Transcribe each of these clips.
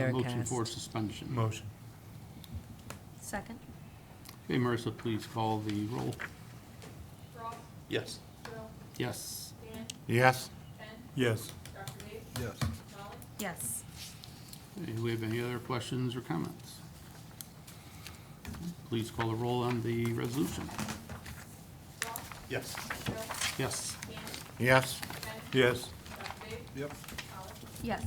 Motion for Wirecast. suspension. Motion. Second? Okay, Marissa, please call the roll. Ross, Yes. Bill, Yes. Dan, Yes. Ken, Yes. Dr. Dave, Yes. Molly, Yes. Okay, Do we have any other questions or comments? Please call the roll on the resolution. Ross, Yes. Bill, Yes. Dan, Yes. Ken, Yes. Dr. Dave, Yep. Molly, Yes.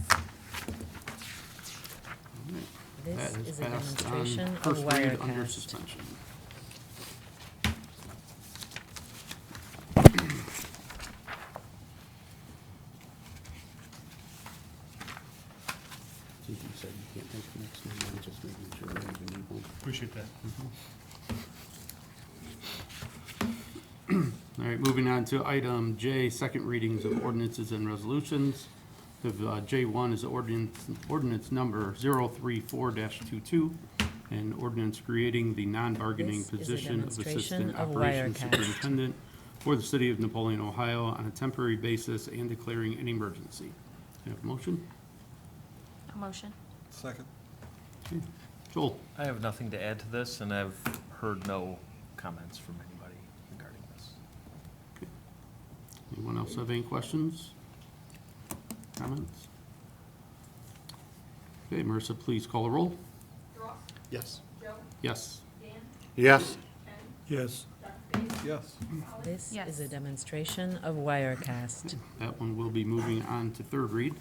All right. This That is a passed on demonstration of First read under Wirecast. suspension. Since you said you can't make the next meeting, I'm just making sure that you need one. Appreciate that. All right, moving on to item J, second readings of ordinances and resolutions. The uh, J1 is ordinance, ordinance number 034-22, an ordinance creating the non-bargaining This is a position of demonstration Assistant of Operations Wirecast. Superintendent for the city of Napoleon, Ohio, on a temporary basis and declaring an emergency. Do you have a motion? A motion? Second. Okay. Joel? I have nothing to add to this, and I've heard no comments from anybody regarding this. Anyone else have any questions? Comments? Okay, Marissa, please call the roll. Ross, Yes. Bill, Yes. Dan, Yes. Ken, Yes. Dr. Dave, Yes. Molly, This Yes. is a demonstration of Wirecast. That one will be moving on to third read.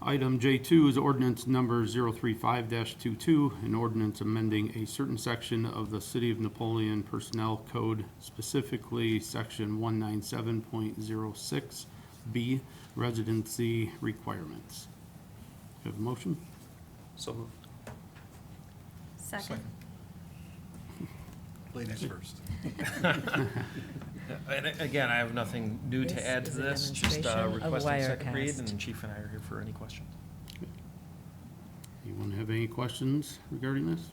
Item J2 is ordinance number 035-22, an ordinance amending a certain section of the City of Napoleon Personnel Code, specifically Section 197.06B Residency Requirements. Do you have a motion? So moved. Second? Ladies first. And a- again, I have nothing new This to add to is a this, just uh, demonstration of requesting second read, Wirecast. and Chief and I are here for any questions. Anyone have any questions regarding this?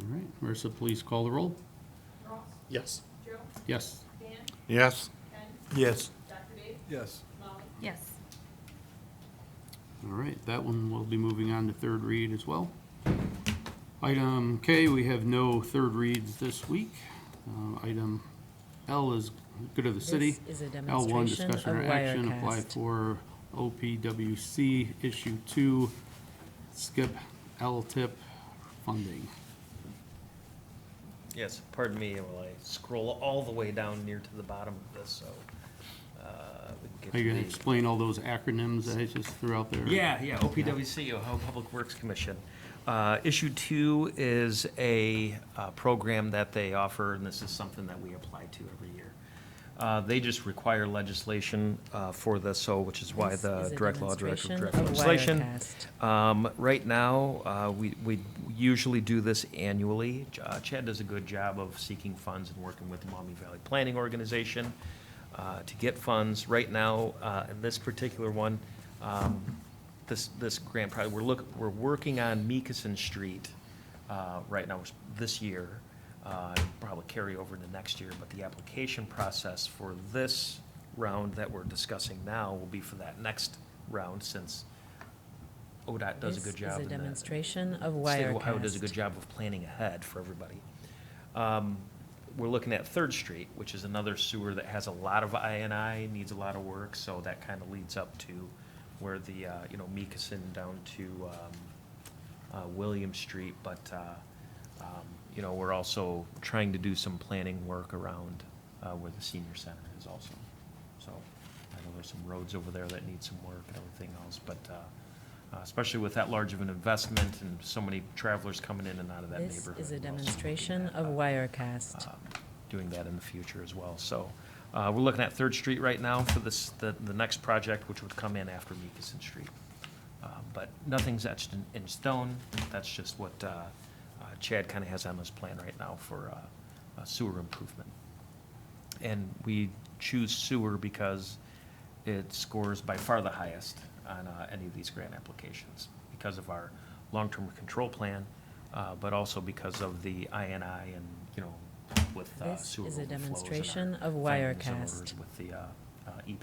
All right, Marissa, please call the roll. Ross, Yes. Bill, Yes. Dan, Yes. Ken, Yes. Dr. Dave, Yes. Molly, Yes. All right, that one will be moving on to third read as well. Item K, we have no third reads this week. Um, Item L is good of the city. This is a L1, demonstration of discussion or action, apply Wirecast. for OPWC Issue 2, skip LTIP funding. Yes, pardon me while I scroll all the way down near to the bottom of this, so. uh, we Are can you get gonna to the- explain all those acronyms that I just threw out there? Yeah, yeah, OPWC, Ohio Public Works Commission. Uh, Issue two is a uh, program that they offer, and this is something that we apply to every year. Uh, They just require legislation uh, for this, so, which is why This the is a direct law director demonstration directs of legislation. Wirecast. Um, Right now, uh, we we usually do this annually. Ch- uh, Chad does a good job of seeking funds and working with the Maumee Valley Planning Organization uh, to get funds. Right now, uh, in this particular one, um, this, this grant project, we're look, we're working on Meekison Street uh, right now, this year. Uh, Probably carry over to next year, but the application process for this round that we're discussing now will be for that next round, since ODOT Oh, does a good This job. in is a the- demonstration of State of Ohio does a Wirecast. good job of planning ahead for everybody. Um, We're looking at Third Street, which is another sewer that has a lot of INI, needs a lot of work, so that kind of leads up to where the, uh, you know, Meekison down to um, uh, William Street, but, uh, um, you know, we're also trying to do some planning work around uh, where the senior center is also. So I know there's some roads over there that need some work and everything else, but uh, uh, especially with that large of an investment and so many travelers coming in and out of that This neighborhood. is a we're also looking demonstration at, of uh, Wirecast. um, Doing that in the future as well. So uh, we're looking at Third Street right now for this, the, the next project, which would come in after Meekison Street. Uh, But nothing's etched in, in stone. That's just what uh, uh, Chad kind of has on his plan right now for uh, uh, sewer improvement. And we choose sewer because it scores by far the highest on uh, any of these grant applications because of our long-term control plan, uh, but also because of the INI and, you know, with uh, This sewer is a overflows and our demonstration of findings and Wirecast. orders With the uh,